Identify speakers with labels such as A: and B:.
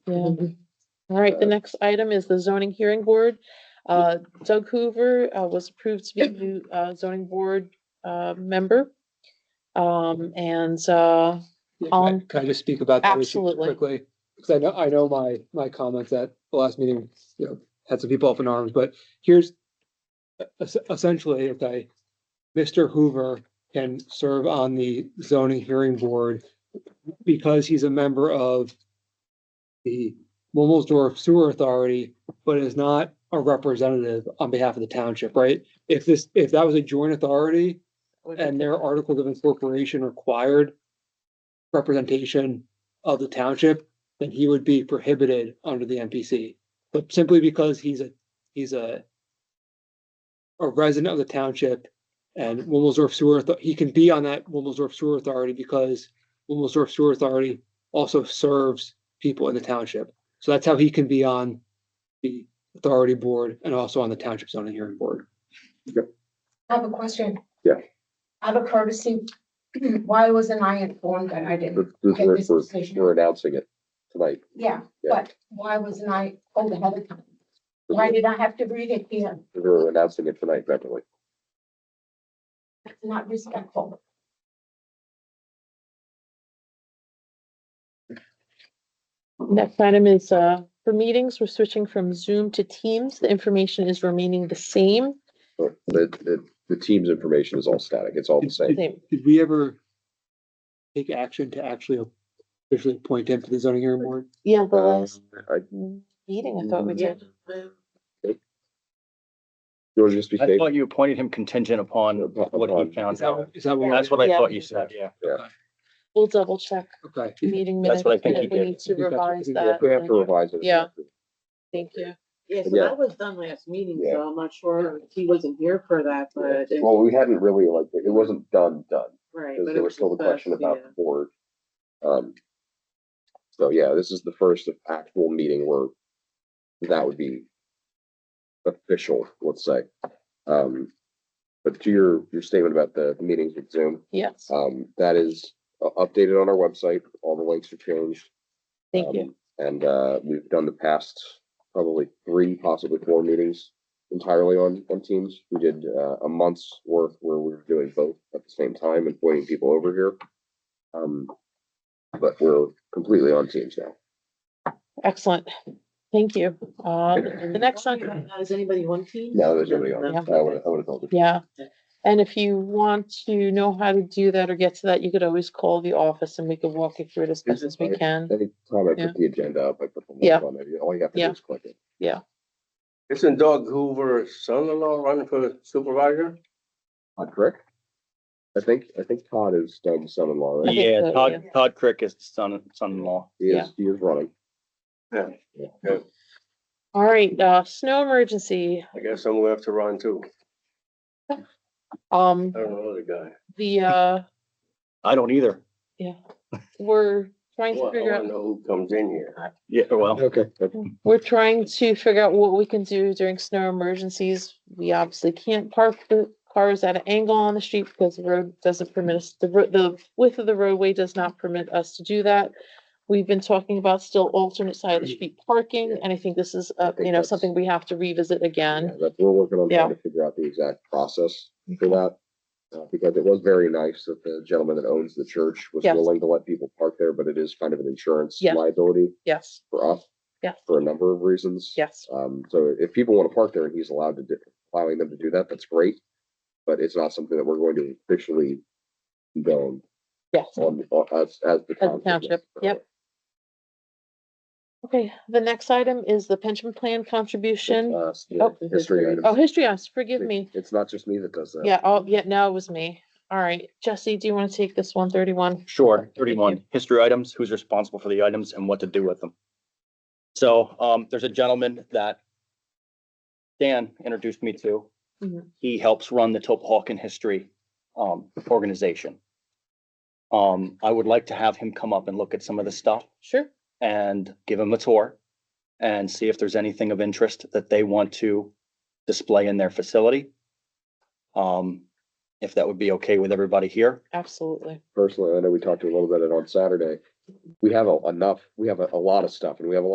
A: Yeah.
B: Mm-hmm.
A: All right,
B: Uh,
A: the next item is the zoning hearing board. Uh,
B: Mm-hmm.
A: Doug Hoover uh, was approved to be the new uh, zoning board uh, member. Um, And uh,
C: Yeah, Can
A: Um,
C: I- can I just speak about that issue
A: absolutely.
C: quickly? Because I know, I know my, my comments at the last meeting, you know, had some people up in arms, but here's e-, es- essentially, if I, Mr. Hoover can serve on the zoning hearing board because he's a member of the Wilmsdorf Sewer Authority, but is not a representative on behalf of the township, right? If this, if that was a joint authority, and their articles of incorporation required representation of the township, then he would be prohibited under the MPC. But simply because he's a, he's a a resident of the township and Wilmsdorf Sewer, Auth- he can be on that Wilmsdorf Sewer Authority because Wilmsdorf Sewer Authority also serves people in the township. So that's how he can be on the authority board and also on the township zoning hearing board.
D: I have a question.
E: Yeah.
D: Out of courtesy, why wasn't I informed that I didn't?
E: This, this,
D: Okay,
E: we're,
D: this
E: we're-
D: decision.
E: we're announcing it tonight.
D: Yeah,
E: Yeah.
D: but why wasn't I told ahead of time? Why did I have to read it here?
E: We're announcing it tonight, Beverly.
D: That's not respectful.
A: next item is uh, for meetings, we're switching from Zoom to Teams. The information is remaining the same.
E: But The, the, the team's information is all static. It's all the same.
A: Same.
C: Did we ever take action to actually officially appoint him to the zoning hearing board?
A: Yeah, the
E: Um,
A: last uh,
E: I,
A: meeting, I thought we
B: mm-hmm.
A: did.
E: you want to just be
B: I
E: safe?
B: thought you appointed him contingent upon what
E: Upon-
B: he
C: Is
B: found
C: that what-
B: out.
C: is that what?
B: That's what I
A: Yeah.
B: thought you said, yeah.
A: We'll double check
C: Okay.
A: meeting minutes.
B: That's what I think
A: and
B: he
A: if We
B: did.
A: need to
C: I think that's- I
A: revise
C: think
A: that.
E: We have to
A: then-
E: revise it.
A: Yeah. Thank you.
F: Yeah, so
E: Yeah.
F: that was done last meeting,
E: Yeah.
F: so I'm not sure, he wasn't here for that, but. it-
E: Well, we hadn't really like, it wasn't done, done,
F: Right.
E: because
F: but
E: there
F: it
E: was still the
F: discussed,
E: question about
F: yeah.
E: the board. Um, so yeah, this is the first actual meeting where that would be official, let's say. Um, but to your, your statement about the meetings with Zoom,
A: Yes,
E: Um, that is uh, updated on our website. All the links are changed.
A: thank you.
E: Um, And, uh, we've done the past probably three, possibly four meetings entirely on, on Teams. We did, uh, a month's worth where we were doing both at the same time and pointing people over here. Um, but we're completely on Teams now.
A: Excellent. Thank you. Uh, the next one,
F: Now, Is anybody on team?
E: No, there's nobody on.
F: No,
E: I would, I would have told you.
A: yeah. And if you want to know how to do that or get to that, you could always call the office and we could walk you through it as best as we can.
E: Anytime I
A: Yeah.
E: put the agenda up, I put the
A: Yeah.
E: link on it. All you have to
A: Yeah.
E: do is click it.
G: Isn't Doug Hoover's son-in-law running for supervisor?
E: Todd Crick? I think, I think Todd is Doug's son-in-law, right?
A: think
B: Yeah,
A: so,
B: Todd, Todd Crick is the son, son-in-law.
E: He is, he is running.
G: Yeah,
A: All right, uh, snow emergency.
G: I guess I'm gonna have to run too.
A: Um,
G: I don't know the guy.
A: the, uh,
B: I don't either.
A: we're trying
G: Well,
A: to
G: I
A: figure
G: wanna
A: out,
G: know who comes in here.
B: Yeah, well,
E: Okay.
A: we're trying to figure out what we can do during snow emergencies. We obviously can't park the cars at an angle on the street because the road doesn't permit us, the, ro- the width of the roadway does not permit us to do that. We've been talking about still alternate side of the street parking, and I think this is, uh,
E: think
A: you know,
E: that's-
A: something we have to revisit again.
E: Yeah, But we're working on
A: Yeah.
E: trying to figure out the exact process for that. uh, Because it was very nice that the gentleman that owns the church was
A: Yes.
E: willing to let people park there, but it is kind of an insurance
A: Yes.
E: liability
A: Yes,
E: for us.
A: Yes.
E: For a number of reasons.
A: yes,
E: Um, so if people want to park there and he's allowed to, do allowing them to do that, that's great. But it's not something that we're going to officially condone
A: yes.
E: on, on- as, as the
A: the
E: township.
A: township, yep. Okay, the next item is the pension plan contribution.
E: Uh, s-
A: Oh.
E: history items.
A: Oh, history house, forgive me.
E: It's not just me that does that.
A: Yeah, oh, yeah, no, it was me. All right, Jesse, do you want to take this one thirty-one?
B: sure, thirty-one, history items, who's responsible for the items and what to do with them. So, um, there's a gentleman that Dan introduced me to.
A: Mhm.
B: He helps run the Topahawken History, um, organization. Um, I would like to have him come up and look at some of the stuff.
A: Sure.
B: and give them a tour and see if there's anything of interest that they want to display in their facility. Um, if that would be okay with everybody here.
A: Absolutely.
E: personally, I know we talked a little bit on Saturday. We have a- enough, we have a, a lot of stuff and we have a lot